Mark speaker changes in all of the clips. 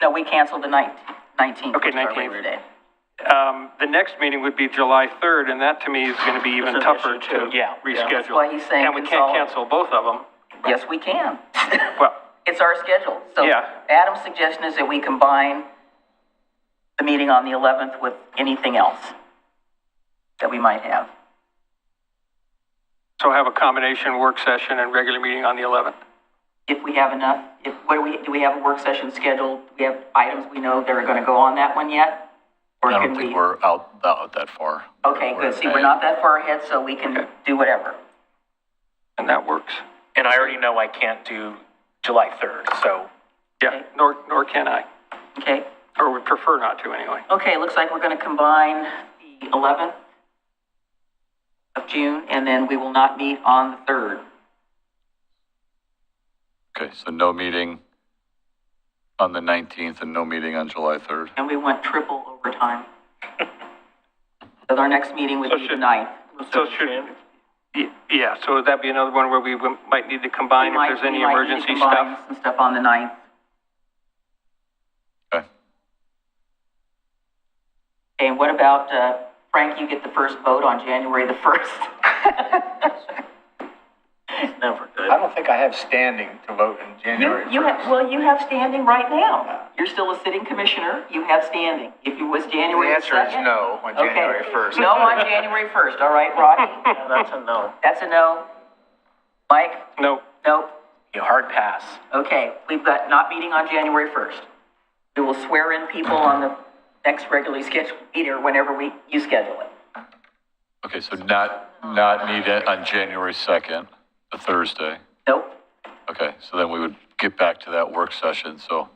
Speaker 1: No, we canceled the ninth, nineteenth,
Speaker 2: Okay,
Speaker 1: which is our
Speaker 2: 19th.
Speaker 1: Labor Day.
Speaker 2: Um, the next meeting would be July 3rd, and that to me is going to be even
Speaker 3: This is an
Speaker 2: tougher
Speaker 3: issue, too.
Speaker 2: to
Speaker 3: Yeah.
Speaker 2: reschedule.
Speaker 3: That's
Speaker 1: why he's saying
Speaker 2: And we can't
Speaker 1: consolidate.
Speaker 2: cancel both of them.
Speaker 1: Yes, we can.
Speaker 2: Well,
Speaker 1: It's our schedule. So
Speaker 2: Yeah.
Speaker 1: Adam's suggestion is that we combine the meeting on the eleventh with anything else that we might have.
Speaker 2: so have a combination work session and regular meeting on the 11th.
Speaker 1: If we have enough, if, what do we, do we have a work session scheduled? Do we have items we know that are gonna go on that one yet? Or
Speaker 4: I
Speaker 1: can
Speaker 4: don't
Speaker 1: we-
Speaker 4: think we're out, out that far.
Speaker 1: Okay, good. See, we're not that far ahead, so we can do whatever.
Speaker 2: And that works.
Speaker 3: And I already know I can't do July 3rd, so
Speaker 2: Yeah, nor, nor can I,
Speaker 1: Okay?
Speaker 2: or would prefer not to anyway.
Speaker 1: Okay, looks like we're gonna combine the eleventh of June, and then we will not meet on the third.
Speaker 4: Okay, so no meeting on the 19th and no meeting on July 3rd.
Speaker 1: And we went triple overtime. So our next meeting would
Speaker 2: So
Speaker 1: be the
Speaker 2: should-
Speaker 1: ninth.
Speaker 2: So should, y- yeah, so would that be another one where we w- might need to combine if there's any emergency stuff?
Speaker 1: Some stuff on the ninth.
Speaker 4: Okay,
Speaker 1: Okay, and what about, uh, Frank, you get the first vote on January the first?
Speaker 5: Never good.
Speaker 6: I don't think I have standing to vote in
Speaker 1: You,
Speaker 6: January.
Speaker 1: you
Speaker 6: first.
Speaker 1: have, well, you have standing right now. You're still a sitting commissioner, you have standing. If it was
Speaker 6: The
Speaker 1: January the
Speaker 6: answer is
Speaker 1: second-
Speaker 6: no on
Speaker 1: Okay.
Speaker 6: January 1st.
Speaker 1: No on January first, all right, Rodney?
Speaker 5: Yeah, That's a no.
Speaker 1: That's a no. Mike?
Speaker 2: No,
Speaker 1: Nope.
Speaker 3: a hard pass.
Speaker 1: Okay, we've got not meeting on January 1st. We will swear in people on the next regularly scheduled meeting or whenever we, you schedule it.
Speaker 4: okay, so not, not meet it on January 2nd, a Thursday.
Speaker 1: Nope.
Speaker 4: Okay, so then we would get back to that work session, so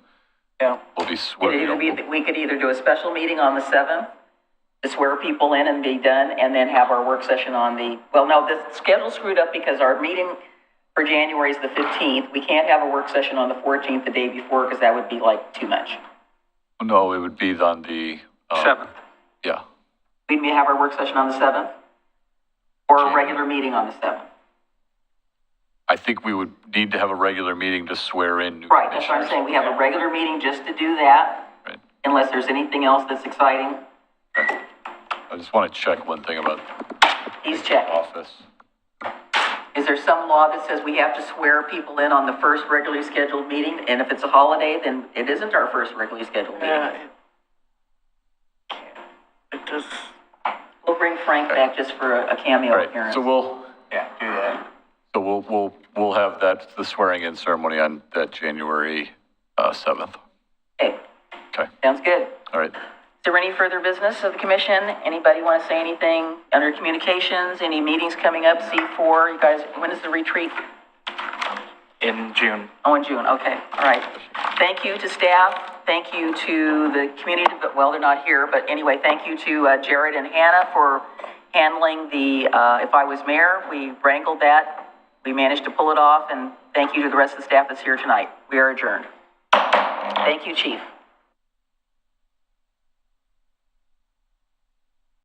Speaker 1: No.
Speaker 4: we'll be
Speaker 1: It
Speaker 4: swearing.
Speaker 1: either be, we could either do a special meeting on the 7th to swear people in and be done, and then have our work session on the, well, no, the schedule screwed up because our meeting for January is the 15th. We can't have a work session on the 14th, the day before, because that would be like too much.
Speaker 4: No, it would be on the, um,
Speaker 2: 7th.
Speaker 4: yeah,
Speaker 1: We'd may have our work session on the 7th or a
Speaker 4: January.
Speaker 1: regular meeting on the 7th.
Speaker 4: I think we would need to have a regular meeting to swear in new
Speaker 1: Right, that's what I'm
Speaker 4: commissioners.
Speaker 1: saying, we have a regular meeting just to do that,
Speaker 4: Right.
Speaker 1: unless there's anything else that's exciting,
Speaker 4: I just want to check one thing about
Speaker 1: he's
Speaker 4: the
Speaker 1: checking.
Speaker 4: office.
Speaker 1: Is there some law that says we have to swear people in on the first regularly scheduled meeting, and if it's a holiday, then it isn't our first regularly scheduled meeting?
Speaker 5: Yeah. It does,
Speaker 1: We'll bring Frank back just for a a
Speaker 4: All
Speaker 1: cameo
Speaker 4: right,
Speaker 1: appearance.
Speaker 4: so we'll,
Speaker 6: Yeah, do that.
Speaker 4: So we'll, we'll, we'll have that, the swearing in ceremony on that January uh, 7th.
Speaker 1: Okay,
Speaker 4: Okay,
Speaker 1: sounds good.
Speaker 4: all right.
Speaker 1: Is there any further business of the commission? Anybody want to say anything under communications, any meetings coming up, C4, you guys, when is the retreat?
Speaker 3: In June.
Speaker 1: Oh, in June, okay, all right. Thank you to staff, thank you to the community, but, well, they're not here, but anyway, thank you to uh, Jared and Hannah for handling the, uh, if I was mayor, we wrangled that, we managed to pull it off, and thank you to the rest of the staff that's here tonight. We are adjourned. Thank you, chief.